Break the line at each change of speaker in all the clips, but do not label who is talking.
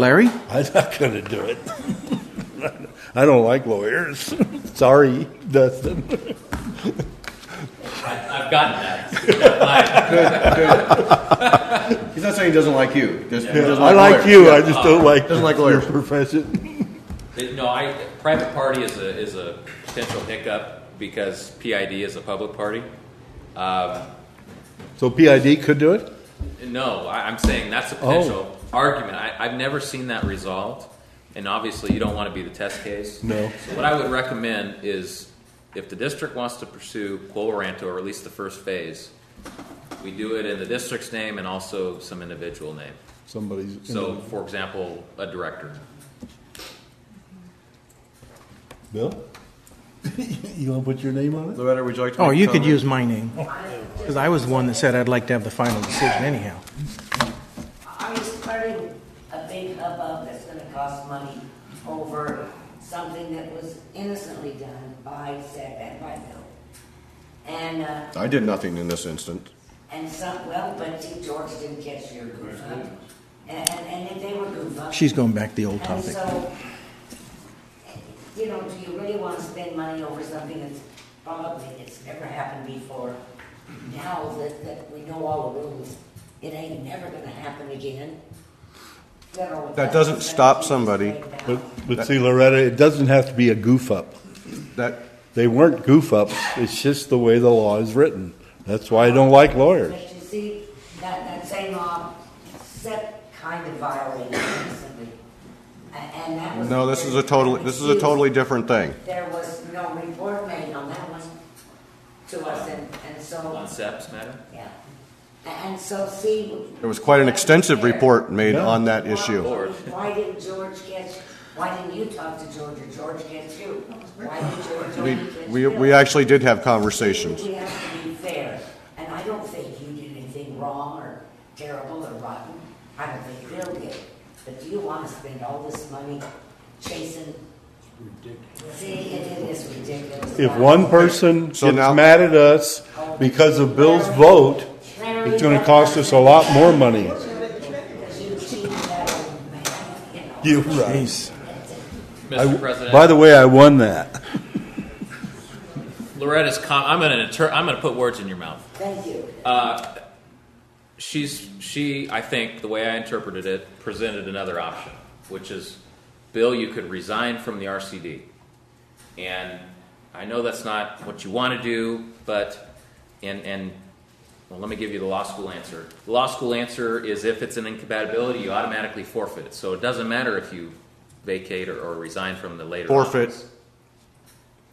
Larry?
I'm not going to do it. I don't like lawyers. Sorry, Dustin.
I've gotten that.
He's not saying he doesn't like you. Just, he doesn't
I like
lawyers.
you,
Yeah.
I just don't like
Doesn't like
your
lawyers.
profession.
It- No, I, private party is a, is a potential hiccup because PID is a public party. Um,
So PID could do it?
No, I, I'm saying that's a potential argument. I, I've never seen that resolved, and obviously you don't want to be the test case.
No.
So what I would recommend is, if the district wants to pursue Quo Warranto, or at least the first phase, we do it in the district's name and also some individual name.
Somebody's.
So, for example, a director.
Bill? You want to put your name on it?
Loretta, would you like to?
Oh,
make a
you could
comment?
use my name. Because I was the one that said I'd like to have the final decision anyhow.
Are you starting a big hubbub that's gonna cost money over something that was innocently done by Zach and by Bill? And, uh,
I did nothing in this instance.
and some, well, but see, George didn't catch your goof up. And, and, and if they were goof up.
She's going back to the old
And
topic.
so, you know, do you really want to spend money over something that's probably, it's never happened before? Now that, that we know all the rules, it ain't never gonna happen again. Federal-
That doesn't stop somebody.
But, but see, Loretta, it doesn't have to be a goof up.
That,
They weren't goof ups, it's just the way the law is written. That's why I don't like lawyers.
But you see, that, that same law, set kind of violated recently, A- and that was.
no, this is a totally, this is a totally different thing.
There was no report made on that one to us, and, and so.
On SEPs, madam?
Yeah, A- and so see.
There was quite an extensive report made
Yeah.
on that
Why-
issue.
Why didn't George get, why didn't you talk to George or George get you? Why did George
We,
only get
we,
Bill?
we actually did have conversations.
We have to be fair, and I don't think you did anything wrong or terrible or rotten. I don't think Bill did. But do you want to spend all this money chasing? See, it it is ridiculous.
If one person gets
So now-
mad at us because of Bill's vote, it's going to cost us a lot more money.
You cheated that old man, you know.
You're right.
Jeez.
Mr. President?
By the way, I won that.
Loretta's com, I'm gonna, inter- I'm gonna put words in your mouth.
Thank you.
she's she i think the way i interpreted it presented another option which is bill you could resign from the rcd and i know that's not what you want to do but and and well let me give you the law school answer the law school answer is if it's an incompatibility you automatically forfeit it so it doesn't matter if you vacate or, or resign from the later
Forfeit
office.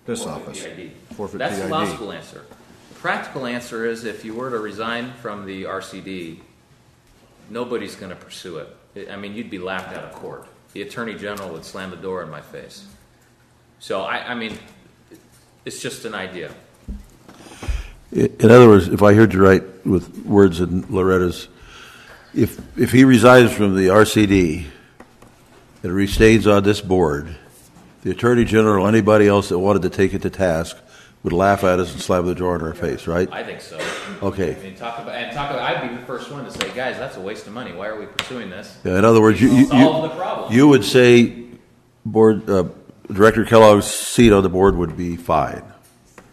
this
Forfeit
office.
PID.
Forfeit
That's the law
PID.
school answer. The practical answer is if you were to resign from the RCD, nobody's going to pursue it. I- I mean, you'd be laughed out of court. The attorney general would slam the door in my face. So I, I mean, it's just an idea.
I- In other words, if I heard you right with words in Loretta's, if, if he resigns from the RCD and restays on this board, the Attorney General, or anybody else that wanted to take it to task, would laugh at us and slam the door in our face, right?
I think so.
Okay.
I mean, talk about, and talk about, I'd be the first one to say, guys, that's a waste of money. Why are we pursuing this?
Yeah, In other words, you, you-
Solve the problem.
you, you would say Board, uh, Director Kellogg's seat on the board would be fine,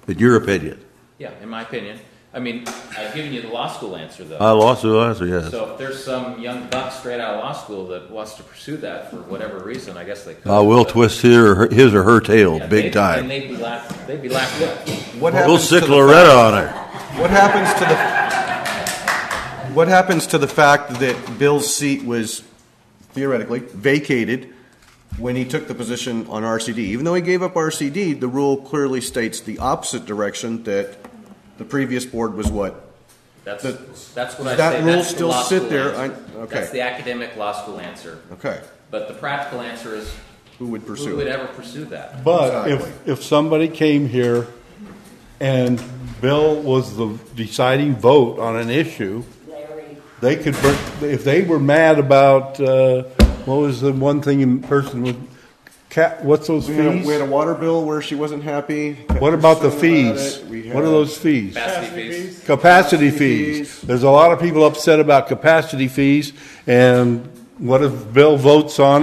in your opinion.
Yeah, in my opinion. I mean, I've given you the law school answer, though.
I lost the answer, yes.
So if there's some young buck straight out of law school that wants to pursue that for whatever reason, I guess they could.
I will
but-
twist her, his or her tail,
Yeah,
big
they'd-
time.
And they'd be laughed, they'd be laughed at.
What
We'll
happens to
sick
the
Loretta on her.
What happens to the What happens to the fact that Bill's seat was theoretically vacated when he took the position on RCD? Even though he gave up RCD, the rule clearly states the opposite direction that the previous board was what?
That's,
The-
that's what I
Does that
say,
rule
that's the
still
law
sit
school
there?
answer.
I- okay.
That's the academic law school answer.
Okay.
But the practical answer is,
Who would pursue
who would
it?
ever pursue that?
But if,
Exactly.
if somebody came here and Bill was the deciding vote on an issue,
Larry.
they could, bur- if they were mad about, uh, what was the one thing in person with, ca- what's those
We had, a, we had
fees?
a water bill where she wasn't happy.
What about the
Person about
fees?
it. We
What are
had-
those fees?
Capacity fees?
Capacity
Capacity
fees.
fees.
There's a lot of people upset about capacity fees, and What if Bill votes on it?